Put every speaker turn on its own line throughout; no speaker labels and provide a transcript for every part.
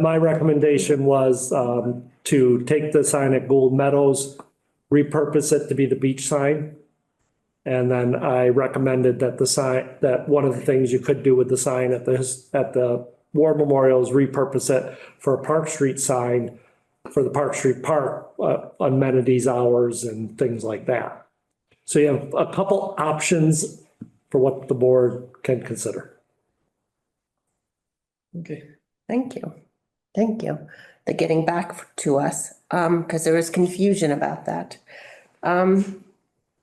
My recommendation was um, to take the sign at Gold Meadows, repurpose it to be the beach sign. And then I recommended that the sign, that one of the things you could do with the sign at this, at the War Memorial is repurpose it for a Park Street sign for the Park Street Park uh, amenities hours and things like that. So you have a couple options for what the board can consider.
Okay.
Thank you. Thank you. They're getting back to us, um, because there was confusion about that. Um,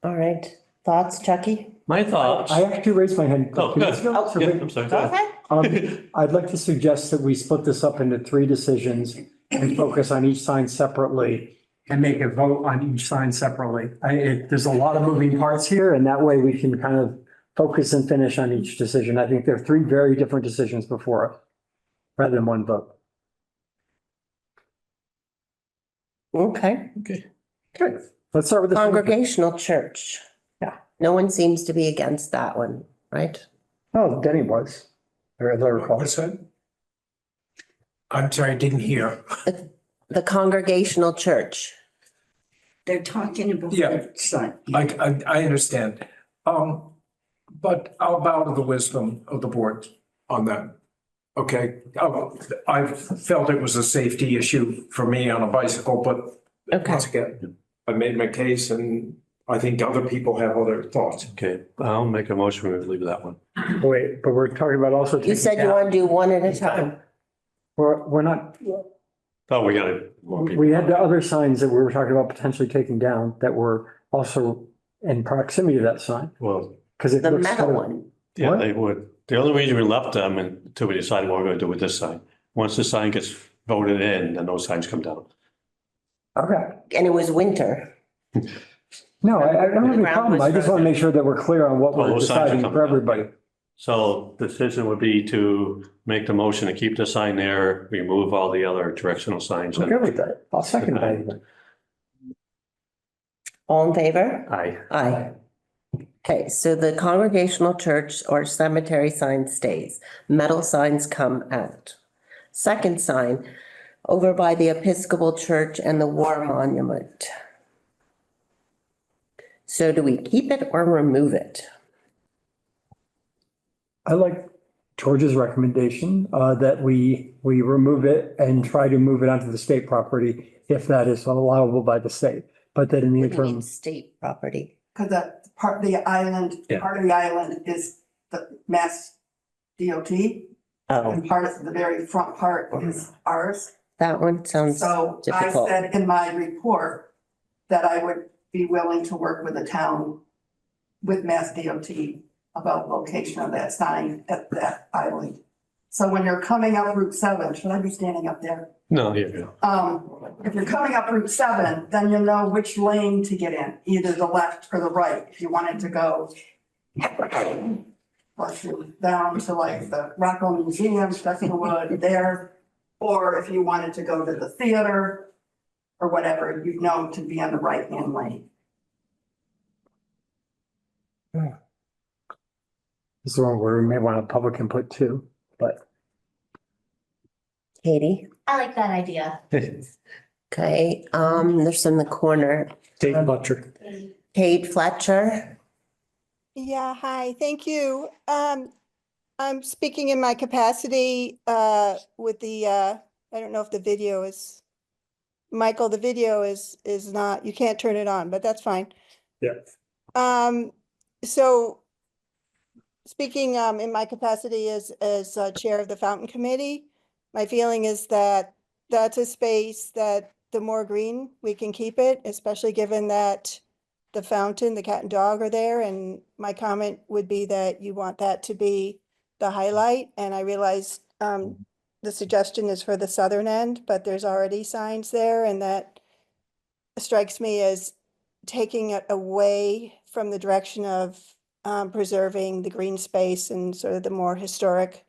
all right, thoughts, Chucky?
My thoughts.
I actually raised my hand.
Oh,
Can you
good.
see that?
Yeah, I'm sorry. go ahead.
Um, I'd like to suggest that we split this up into three decisions and focus on each sign separately and make a vote on each sign separately. I, it, there's a lot of moving parts here and that way we can kind of focus and finish on each decision. I think there are three very different decisions before it, rather than one vote.
Okay,
Okay.
Good. Let's start with the.
congregational church.
Yeah.
No one seems to be against that one, right?
Oh, Denny was, or as I recall.
What's that? I'm sorry, I didn't hear.
The congregational church.
They're talking about.
Yeah.
their Son.
Like, I, I understand. Um, but I'll bow to the wisdom of the board on that. Okay, Um, I felt it was a safety issue for me on a bicycle, but
Okay,
once again, I made my case and I think other people have other thoughts.
Okay, I'll make a motion, we leave that one.
Wait, but we're talking about also.
you said you want to do one at a time.
We're, we're not,
Oh, we got it. more people.
We had the other signs that we were talking about potentially taking down that were also in proximity to that sign,
Well,
because it
The
looks.
metal
sort of-
one.
yeah,
What?
they would. The only reason we left them until we decided what we're going to do with this sign. Once the sign gets voted in, then those signs come down.
Okay,
And it was winter.
no, I, I don't have
The
any
ground
problem. I
was
just want to
frozen.
make sure that we're clear on what
Well,
we're
those signs are
deciding
coming
for
down.
everybody.
So the decision would be to make the motion to keep the sign there, remove all the other directional signs.
I'm
and-
good with that. I'll second that. even.
All in favor?
Aye.
Aye. Okay, so the congregational church or cemetery sign stays, metal signs come out. Second sign, over by the Episcopal Church and the War Monument. So do we keep it or remove it?
I like George's recommendation, uh, that we, we remove it and try to move it onto the state property if that is allowable by the state. But that in the
We need
interim,
State property.
Because that part, the island,
Yeah.
part of the island is the mass DOT
Oh,
and part of the very front part is ours.
that one sounds,
So I
difficult.
said in my report that I would be willing to work with the town with mass DOT about location of that sign at that island. So when you're coming up Route seven, should I be standing up there?
No, here you go.
Um, if you're coming up Route seven, then you'll know which lane to get in, either the left or the right, if you wanted to go. bless you, down to like the Rockwell Museum, Stephen Wood there, or if you wanted to go to the theater. Or whatever, you'd know to be on the right hand lane.
this is the one where we may want a public input too.
Katie,
I like that idea.
okay, um, there's in the corner,
Dave Butcher.
Kate Fletcher.
Yeah, hi, thank you. Um, I'm speaking in my capacity, uh, with the, uh, I don't know if the video is. Michael, the video is, is not, you can't turn it on, but that's fine.
Yeah.
Um, so. Speaking, um, in my capacity as, as uh, Chair of the Fountain Committee, my feeling is that that's a space that the more green we can keep it, especially given that the fountain, the cat and dog are there, and my comment would be that you want that to be the highlight, and I realized, um, the suggestion is for the southern end, but there's already signs there, and that strikes me as taking it away from the direction of, um, preserving the green space and sort of the more historic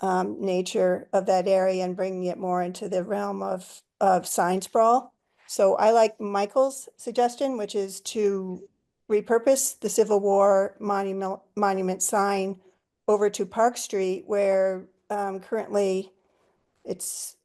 um, nature of that area and bringing it more into the realm of, of sign sprawl. So I like Michael's suggestion, which is to repurpose the Civil War monument, monument sign over to Park Street where um, currently it's,